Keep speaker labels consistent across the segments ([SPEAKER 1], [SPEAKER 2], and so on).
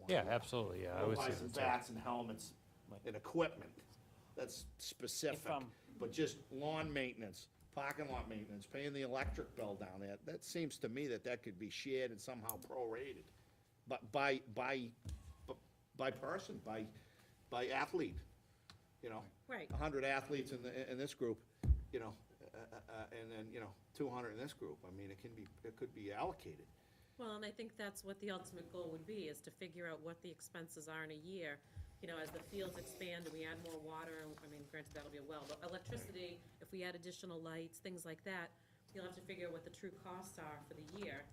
[SPEAKER 1] one.
[SPEAKER 2] Yeah, absolutely, yeah, I
[SPEAKER 1] Go
[SPEAKER 2] would
[SPEAKER 1] buy
[SPEAKER 2] say
[SPEAKER 1] some
[SPEAKER 2] that's right.
[SPEAKER 1] bats and helmets and equipment, that's specific.
[SPEAKER 3] um,
[SPEAKER 1] But just lawn maintenance, parking lot maintenance, paying the electric bill down there, that seems to me that that could be shared and somehow prorated. But by, by, b- by person, by, by athlete, you know?
[SPEAKER 4] Right.
[SPEAKER 1] A hundred athletes in the, in this group, you know, uh, uh, uh, and then, you know, two hundred in this group, I mean, it can be, it could be allocated.
[SPEAKER 4] Well, and I think that's what the ultimate goal would be, is to figure out what the expenses are in a year. You know, as the fields expand and we add more water, I mean, granted, that'll be a well, but electricity, if we add additional lights, things like that, you'll have to figure out what the true costs are for the year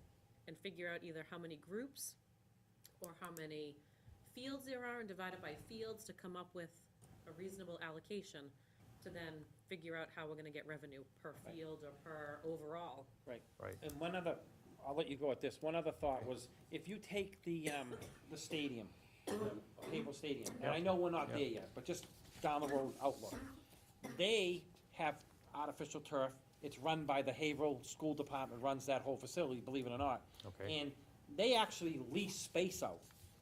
[SPEAKER 4] and figure out either how many groups or how many fields there are and divide it by fields to come up with a reasonable allocation to then figure out how we're gonna get revenue per field or per overall.
[SPEAKER 3] Right.
[SPEAKER 2] Right.
[SPEAKER 3] And one other, I'll let you go at this, one other thought was, if you take the, um, the stadium, Cable Stadium, and I know we're not there yet, but just down the road outlook. They have artificial turf, it's run by the Haverhill School Department, runs that whole facility, believe it or not.
[SPEAKER 2] Okay.
[SPEAKER 3] And they actually lease space out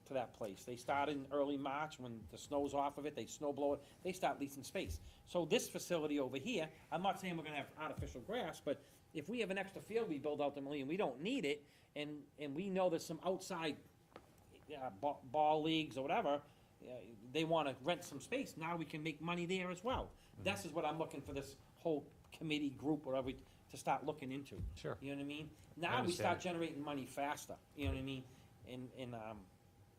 [SPEAKER 3] to that place. They start in early March, when the snow's off of it, they snow blow it, they start leasing space. So this facility over here, I'm not saying we're gonna have artificial grass, but if we have an extra field we build out the million, we don't need it, and, and we know there's some outside uh, ball, ball leagues or whatever, uh, they wanna rent some space, now we can make money there as well. This is what I'm looking for this whole committee group, whatever, we- to start looking into.
[SPEAKER 2] Sure.
[SPEAKER 3] You know what I mean? Now we
[SPEAKER 2] understand
[SPEAKER 3] start
[SPEAKER 2] it.
[SPEAKER 3] generating money faster, you know what I mean? And, and, um,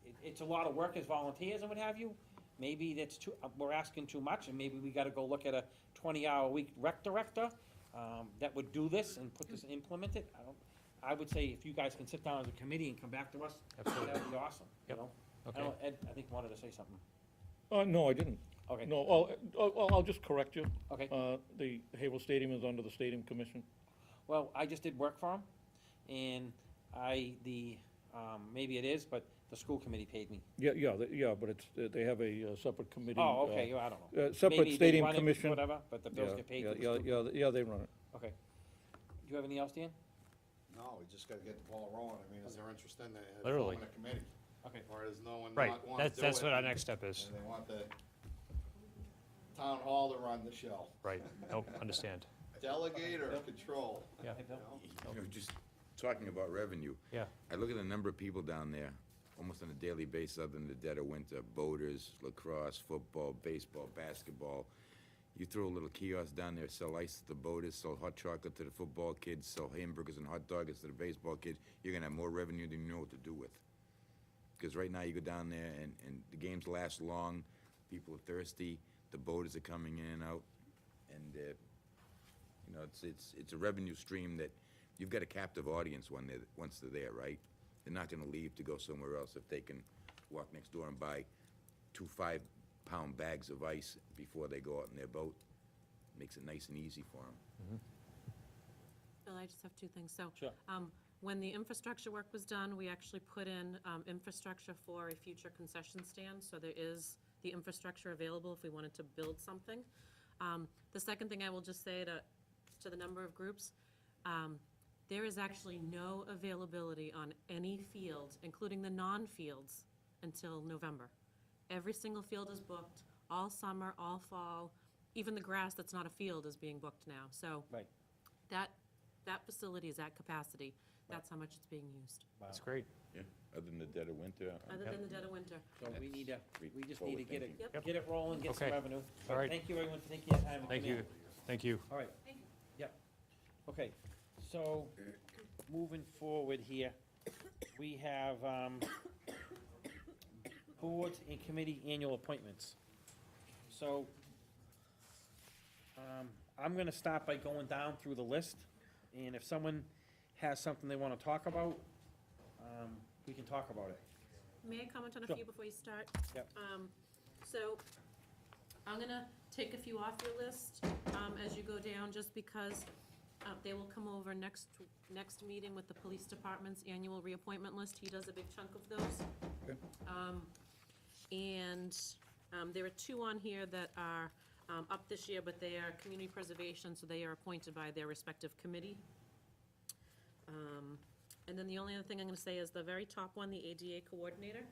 [SPEAKER 3] it, it's a lot of work as volunteers and what have you. Maybe that's too, uh, we're asking too much, and maybe we gotta go look at a twenty-hour week rec director, um, that would do this and put this, implement it. I don't, I would say if you guys can sit down as a committee and come back to us,
[SPEAKER 2] Absolutely.
[SPEAKER 3] that'd be awesome, you
[SPEAKER 2] Yep.
[SPEAKER 3] know? I
[SPEAKER 2] Okay.
[SPEAKER 3] don't- Ed, I think wanted to say something.
[SPEAKER 5] Uh, no, I didn't.
[SPEAKER 3] Okay.
[SPEAKER 5] No, oh, oh, oh, I'll just correct you.
[SPEAKER 3] Okay.
[SPEAKER 5] Uh, the Havel Stadium is under the Stadium Commission.
[SPEAKER 3] Well, I just did work for him, and I, the, um, maybe it is, but the school committee paid me.
[SPEAKER 5] Yeah, yeah, they- yeah, but it's, uh, they have a uh, separate committee.
[SPEAKER 3] Oh,
[SPEAKER 5] uh,
[SPEAKER 3] okay, well, I don't know.
[SPEAKER 5] uh, Separate
[SPEAKER 3] Maybe they
[SPEAKER 5] Stadium
[SPEAKER 3] run it,
[SPEAKER 5] Commission.
[SPEAKER 3] Whatever, but the bills
[SPEAKER 5] Yeah,
[SPEAKER 3] get paid
[SPEAKER 5] yeah,
[SPEAKER 3] to the
[SPEAKER 5] yeah,
[SPEAKER 3] school.
[SPEAKER 5] Yeah, yeah, they run it.
[SPEAKER 3] Okay. Do you have anything else, Dan?
[SPEAKER 6] No, we just gotta get the ball rolling. I mean, is there interest in that? in
[SPEAKER 2] Literally.
[SPEAKER 6] forming a committee?
[SPEAKER 3] Okay.
[SPEAKER 6] Or is no one
[SPEAKER 2] Right,
[SPEAKER 6] not want to
[SPEAKER 2] that's,
[SPEAKER 6] do
[SPEAKER 2] that's
[SPEAKER 6] it
[SPEAKER 2] what our next step is,
[SPEAKER 6] And they want the town hall to run the show.
[SPEAKER 2] right, nope, understand,
[SPEAKER 6] Delegate or control?
[SPEAKER 2] yeah,
[SPEAKER 3] Hey, Bill?
[SPEAKER 7] You know, just talking about revenue.
[SPEAKER 2] yeah,
[SPEAKER 7] I look at the number of people down there, almost on a daily basis, other than the dead of winter, boaters, lacrosse, football, baseball, basketball. You throw a little kiosk down there, sell ice to the boaters, sell hot chocolate to the football kids, sell hamburgers and hot dogs to the baseball kids, you're gonna have more revenue than you know what to do with. Because right now, you go down there and, and the games last long, people are thirsty, the boaters are coming in and out, and, uh, you know, it's, it's, it's a revenue stream that, you've got a captive audience when they're, once they're there, right? They're not gonna leave to go somewhere else if they can walk next door and buy two five-pound bags of ice before they go out in their boat. Makes it nice and easy for them.
[SPEAKER 4] Bill, I just have two things. So.
[SPEAKER 3] Sure.
[SPEAKER 4] um, When the infrastructure work was done, we actually put in um, infrastructure for a future concession stand. So there is the infrastructure available if we wanted to build something. Um, The second thing I will just say to, to the number of groups, um, there is actually no availability on any field, including the non-fields, until November. Every single field is booked, all summer, all fall. Even the grass that's not a field is being booked now. So
[SPEAKER 3] Right.
[SPEAKER 4] that, that facility is at capacity. That's how much it's being used,
[SPEAKER 2] that's great,
[SPEAKER 7] Yeah, other than the dead of winter.
[SPEAKER 4] other than the dead of winter.
[SPEAKER 3] So we need to,
[SPEAKER 7] That's
[SPEAKER 3] we just need to get it,
[SPEAKER 4] Yep.
[SPEAKER 3] get it rolling, get some
[SPEAKER 2] Okay.
[SPEAKER 3] revenue.
[SPEAKER 2] All right.
[SPEAKER 3] Thank you, everyone, for taking your time. and
[SPEAKER 2] thank
[SPEAKER 3] coming in.
[SPEAKER 2] you, thank you.
[SPEAKER 3] All right.
[SPEAKER 4] Thank you.
[SPEAKER 3] Yep. Okay, so, moving forward here, we have, um, boards and committee annual appointments. So, um, I'm gonna start by going down through the list, and if someone has something they wanna talk about, um, we can talk about it.
[SPEAKER 4] May I comment on a
[SPEAKER 3] Sure.
[SPEAKER 4] few before you start?
[SPEAKER 3] Yep.
[SPEAKER 4] Um, So I'm gonna take a few off your list um, as you go down, just because uh, they will come over next, next meeting with the police department's annual reappointment list. He does a big chunk of those. Um, And um, there are two on here that are um, up this year, but they are community preservation, so they are appointed by their respective committee. Um, And then the only other thing I'm gonna say is the very top one, the ADA coordinator.